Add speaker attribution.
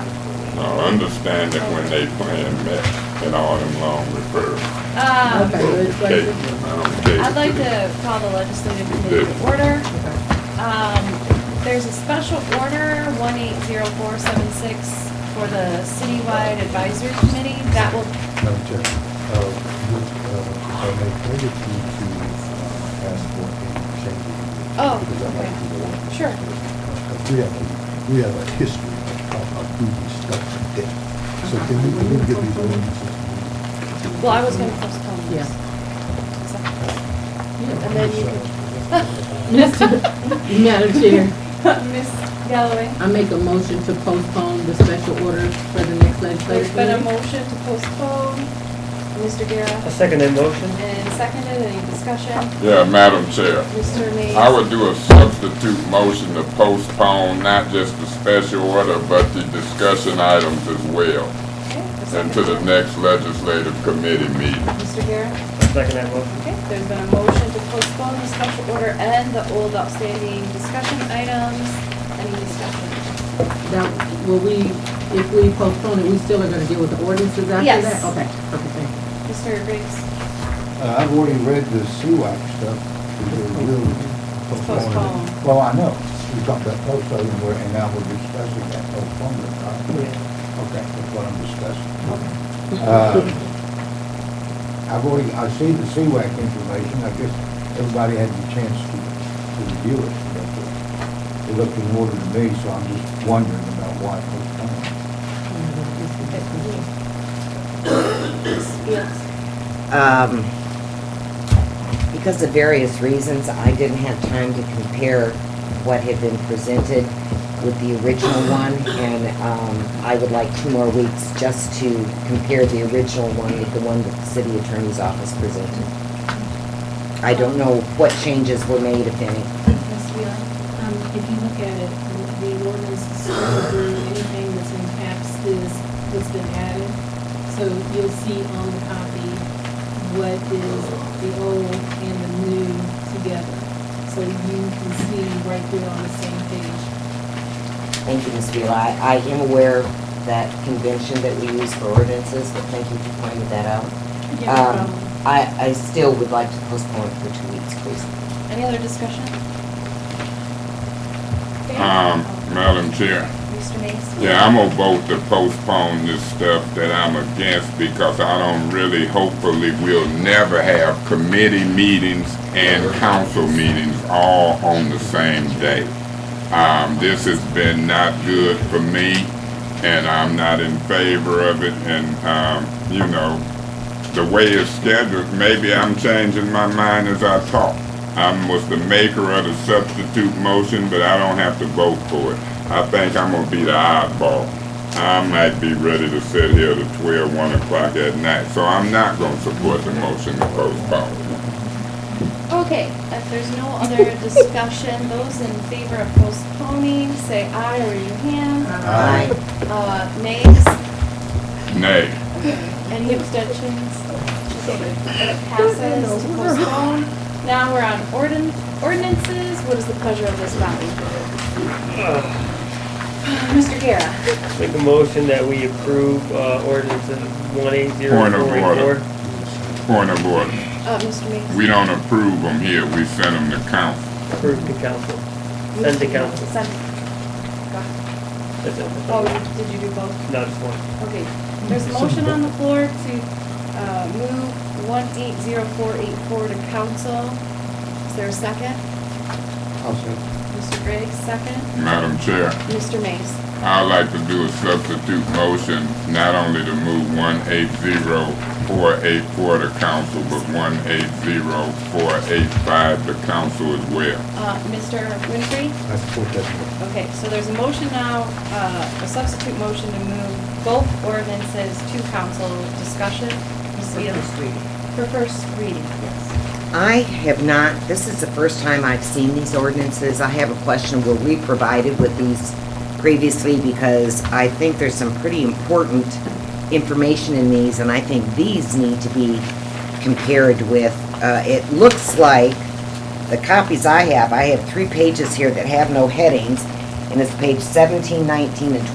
Speaker 1: uh, understanding when they plan that, and all them long referrals.
Speaker 2: Um,
Speaker 3: Okay, good
Speaker 1: Okay,
Speaker 3: question.
Speaker 1: um, okay.
Speaker 2: I'd like to call the legislative committee to order. Um, There's a special order, 180476, for the citywide advisory committee. That will,
Speaker 4: Madam Chair, uh, would, uh, if I may, can I get you to uh, ask for a change? of-
Speaker 2: Oh,
Speaker 4: because I'd like
Speaker 2: okay.
Speaker 4: to go on.
Speaker 2: Sure.
Speaker 4: Uh, We have, a- we have a history of of who we stuck to death. So can we, can we get these ordinances?
Speaker 2: well, I was going to postpone this. So- And then you can.
Speaker 3: Madam Chair,
Speaker 2: Miss Galloway,
Speaker 3: I make a motion to postpone the special order for the next
Speaker 2: there's
Speaker 3: legislative
Speaker 2: been a
Speaker 3: meeting.
Speaker 2: motion to postpone. Mr.
Speaker 5: I
Speaker 2: Guerra,
Speaker 5: second that motion.
Speaker 2: and seconded, any discussion?
Speaker 1: Yeah, Madam Chair,
Speaker 2: Mr. Mays?
Speaker 1: I would do a substitute motion to postpone not just the special order, but the discussion items as well,
Speaker 2: Okay, a second.
Speaker 1: and to the next legislative committee meeting.
Speaker 2: Mr. Guerra?
Speaker 5: I second that motion.
Speaker 2: Okay, there's been a motion to postpone the special order and the old outstanding discussion items. Any discussion?
Speaker 3: That, will we, if we postpone it, we still are gonna deal with the ordinances after
Speaker 2: Yes.
Speaker 3: that? Okay, okay, thank you.
Speaker 2: Mr. Riggs,
Speaker 4: Uh, I've already read the SUAC stuff. We were really postponing it.
Speaker 2: Postpone.
Speaker 4: Well, I know, we talked about postponing, and we're- and now we're discussing that postponement, right? Okay, that's what I'm discussing. Uh, I've already, I've seen the CWAC information, I guess everybody had the chance to, to review it. but, uh, It looked in order to me, so I'm just wondering about why it was done.
Speaker 2: yes.
Speaker 6: Um, because of various reasons, I didn't have time to compare what had been presented with the original one, and, um, I would like two more weeks just to compare the original one with the one that the city attorney's office presented. I don't know what changes were made, if any.
Speaker 7: Ms. Wheeler, um, if you look at it, the ordinance is through anything that's in caps is, that's been added. So you'll see on the copy what is the old and the new together. So you can see right there on the same page.
Speaker 6: Thank you, Ms. Vila. I, I am aware of that convention that we use for ordinances, but thank you for pointing that out.
Speaker 7: Yeah, no
Speaker 6: Um,
Speaker 7: problem.
Speaker 6: I, I still would like to postpone it for two weeks, please.
Speaker 2: Any other discussion?
Speaker 1: Um, Madam Chair,
Speaker 2: Mr. Mays?
Speaker 1: yeah, I'm gonna vote to postpone this stuff that I'm against because I don't really, hopefully, we'll never have committee meetings and council meetings all on the same day. Um, this has been not good for me, and I'm not in favor of it, and, um, you know, the way it's scheduled, maybe I'm changing my mind as I talk. I was the maker of the substitute motion, but I don't have to vote for it. I think I'm gonna be the oddball. I might be ready to sit here till twelve, one o'clock at night, so I'm not gonna support the motion to postpone.
Speaker 2: Okay, if there's no other discussion, those in favor of postponing, say aye or raise your hand.
Speaker 6: Aye.
Speaker 2: Uh, nays?
Speaker 1: Nay.
Speaker 2: Any abstentions? Okay, It passes to postpone. Now we're on ordin- ordinances. What is the pleasure of this body? Mr. Guerra?
Speaker 5: Make a motion that we approve uh, ordinance one eight zero
Speaker 1: Point of
Speaker 5: four eight
Speaker 1: order.
Speaker 5: four.
Speaker 1: Point of order.
Speaker 2: Uh, Mr. Mays?
Speaker 1: We don't approve them here, we send them to council.
Speaker 5: Approved to council. Send to council.
Speaker 2: Send.
Speaker 5: That's it.
Speaker 2: Oh, did you do both?
Speaker 5: No, just one.
Speaker 2: Okay. There's a motion on the floor to, uh, move one eight zero four eight four to council. Is there a second?
Speaker 4: I'll say,
Speaker 2: Mr. Griggs, second.
Speaker 1: Madam Chair,
Speaker 2: Mr. Mays?
Speaker 1: I'd like to do a substitute motion, not only to move one eight zero four eight four to council, but one eight zero four eight five to council as well.
Speaker 2: Uh, Mr. Winfrey?
Speaker 4: I support that. motion.
Speaker 2: Okay, so there's a motion now, uh, a substitute motion to move both ordinances to council discussion. Ms.
Speaker 6: For
Speaker 2: Vila?
Speaker 6: first reading.
Speaker 2: For first reading, yes.
Speaker 6: I have not, this is the first time I've seen these ordinances. I have a question, were we provided with these previously? Because I think there's some pretty important information in these, and I think these need to be compared with. Uh, It looks like the copies I have, I have three pages here that have no headings, and it's page 17, 19, and 20.